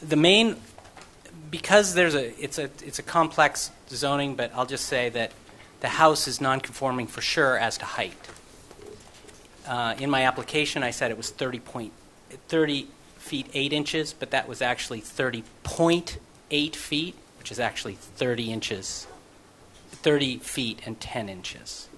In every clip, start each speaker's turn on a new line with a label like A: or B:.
A: the main, because there's a, it's a, it's a complex zoning, but I'll just say that the house is non-conforming for sure as to height. Uh, In my application, I said it was 30 point, 30 feet 8 inches, but that was actually 30.8 feet, which is actually 30 inches, 30 feet and 10 inches.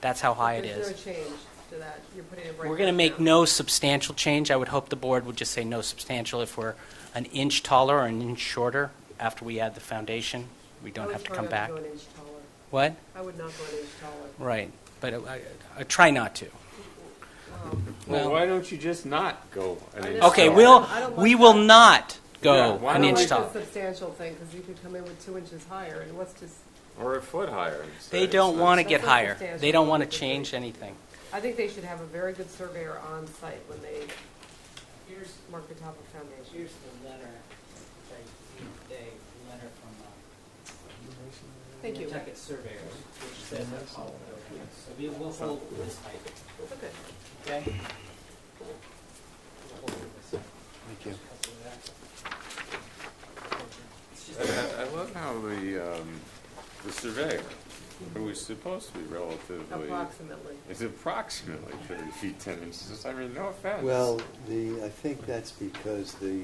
A: That's how high it
B: There's
A: is.
B: no change to that, you're putting it right.
A: We're going to
B: back
A: make
B: down.
A: no substantial change. I would hope the board would just say no substantial if we're an inch taller or an inch shorter after we add the foundation. We
B: I
A: don't
B: would
A: have to
B: try
A: come
B: not
A: back.
B: go an inch taller.
A: What?
B: I would not go an inch taller.
A: Right, but I- I I try not to.
C: Well,
A: Well-
C: why don't you just not go? an
B: I
C: inch
B: just-
A: Okay,
C: taller?
A: we'll,
B: I don't
A: we
B: like
A: will
B: that.
A: not
C: Yeah,
A: go
C: why
A: an
C: don't
A: inch
C: we-
B: I don't
A: taller.
B: like the substantial thing, because you could come in with two inches higher, and what's just,
C: Or a foot higher. and
A: They
C: say
A: don't
C: it's
A: want to
C: nice.
A: get
B: That's not
A: higher.
B: substantial.
A: They don't want to change anything.
B: I think they should have a very good surveyor on site when they
D: Here's,
B: mark the top of foundation.
D: here's the letter, the, the letter from the
B: Thank you.
D: Nantucket surveyors, which says that all buildings, so we will hold this height,
B: Okay.
D: okay? We'll hold it this height.
E: Thank you.
D: Because of that. It's just-
C: I I love how the, um, the surveyor, who is supposed to be
D: Oh,
C: relatively,
B: Approximately.
C: is approximately thirty feet ten inches. I mean, no offense.
E: Well, the, I think that's because the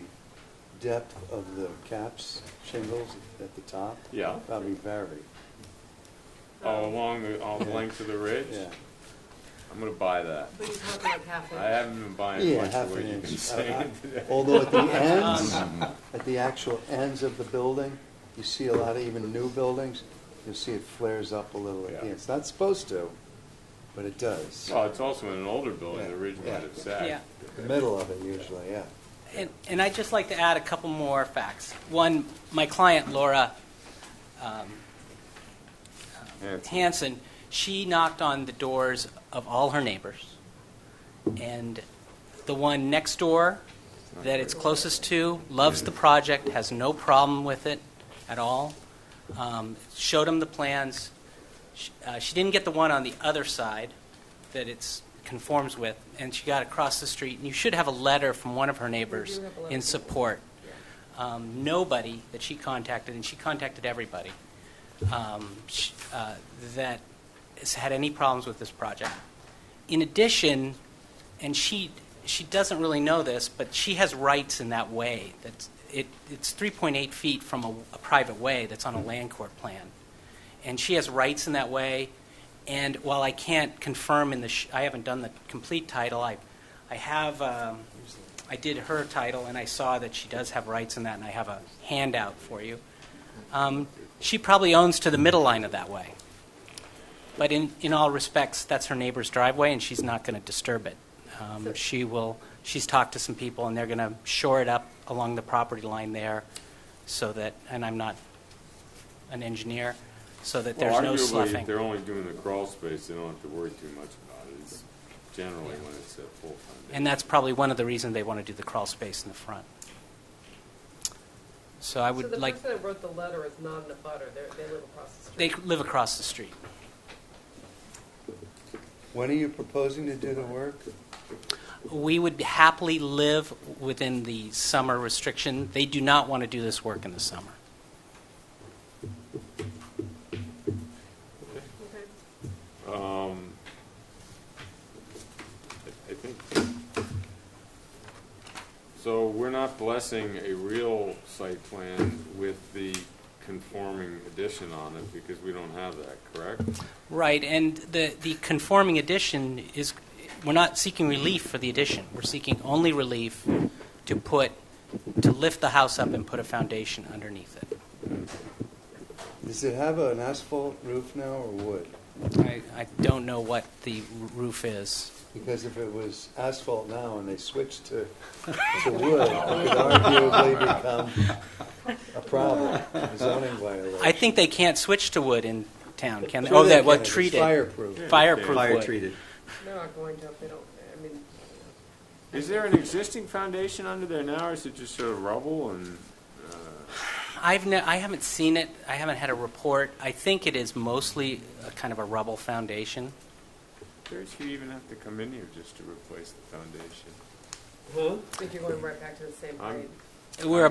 E: depth of the caps shingles at the top
C: Yeah,
E: probably vary.
C: all along the, all the length of the ridge.
E: Yeah,
C: I'm gonna buy that.
B: But you're talking like half
C: I
B: inch.
C: haven't been buying
E: yeah,
C: much
E: half
C: of what
E: an
C: you've been
E: inch. Uh,
C: saying
E: uh,
C: today.
E: Although at the ends, at the actual ends of the building, you see a lot of even new buildings, you see it flares up a little at the
C: Yeah.
E: end. It's not supposed to, but it does.
C: Well, it's also in an older building, the ridge
E: Yeah.
C: might have sagged.
A: Yeah.
E: The middle of it usually, yeah.
A: And, and I'd just like to add a couple more facts. One, my client Laura um,
C: Hanson.
A: Hanson, she knocked on the doors of all her neighbors. And the one next door that it's closest to loves the project, has no problem with it at all. Um, Showed him the plans. She- uh, She didn't get the one on the other side that it's conforms with, and she got across the street. And you should have a letter from one of her neighbors
B: have a letter from
A: in
B: one.
A: support. Um, Nobody that she contacted, and she contacted everybody, um, sh- uh, that has had any problems with this project. In addition, and she, she doesn't really know this, but she has rights in that way. That's, it, it's 3.8 feet from a, a private way that's on a land court plan. And she has rights in that way, and while I can't confirm in the, sh- I haven't done the complete title, I, I have, um, I did her title, and I saw that she does have rights in that, and I have a handout for you. Um, She probably owns to the middle line of that way. But in, in all respects, that's her neighbor's driveway, and she's not going to disturb it. Um,
B: So-
A: She will, she's talked to some people, and they're going to shore it up along the property line there so that, and I'm not an engineer, so that there's
C: Well,
A: no
C: Arguably,
A: sloughing.
C: if they're only doing the crawl space, they don't have to worry too much about it. It's generally when it's at full foundation.
A: And that's probably one of the reasons they want to do the crawl space in the front. So I
B: So the
A: would like,
B: person that wrote the letter is not in a butter, they're, they live across the
A: they
B: street.
A: live across the street.
E: When are you proposing to do the work?
A: We would happily live within the summer restriction. They do not want to do this work in the summer.
B: Okay.
C: Um, I I think, so we're not blessing a real site plan with the conforming addition on it because we don't have that, correct?
A: Right, and the, the conforming addition is, we're not seeking relief for the addition. We're seeking only relief to put, to lift the house up and put a foundation underneath it.
E: Does it have an asphalt roof now or wood?
A: I, I don't know what the roof is.
E: Because if it was asphalt now and they switched to, to wood, it could arguably become a problem, a zoning violation.
A: I think they can't switch to wood in town, can they?
E: Sure
A: Oh,
E: they
A: that,
E: can.
A: what,
E: It's
A: treated?
E: Fireproof.
A: Fireproof
E: Fire
A: wood.
E: treated.
B: They're not going to, if they don't, I mean,
C: Is there an existing foundation under there now or is it just sort of rubble and, uh,
A: I've ne- I haven't seen it. I haven't had a report. I think it is mostly a kind of a rubble foundation.
C: curious if you even have to come in here just to replace the foundation?
B: I think you're going right back to the same
C: I'm-
B: grade.
A: We're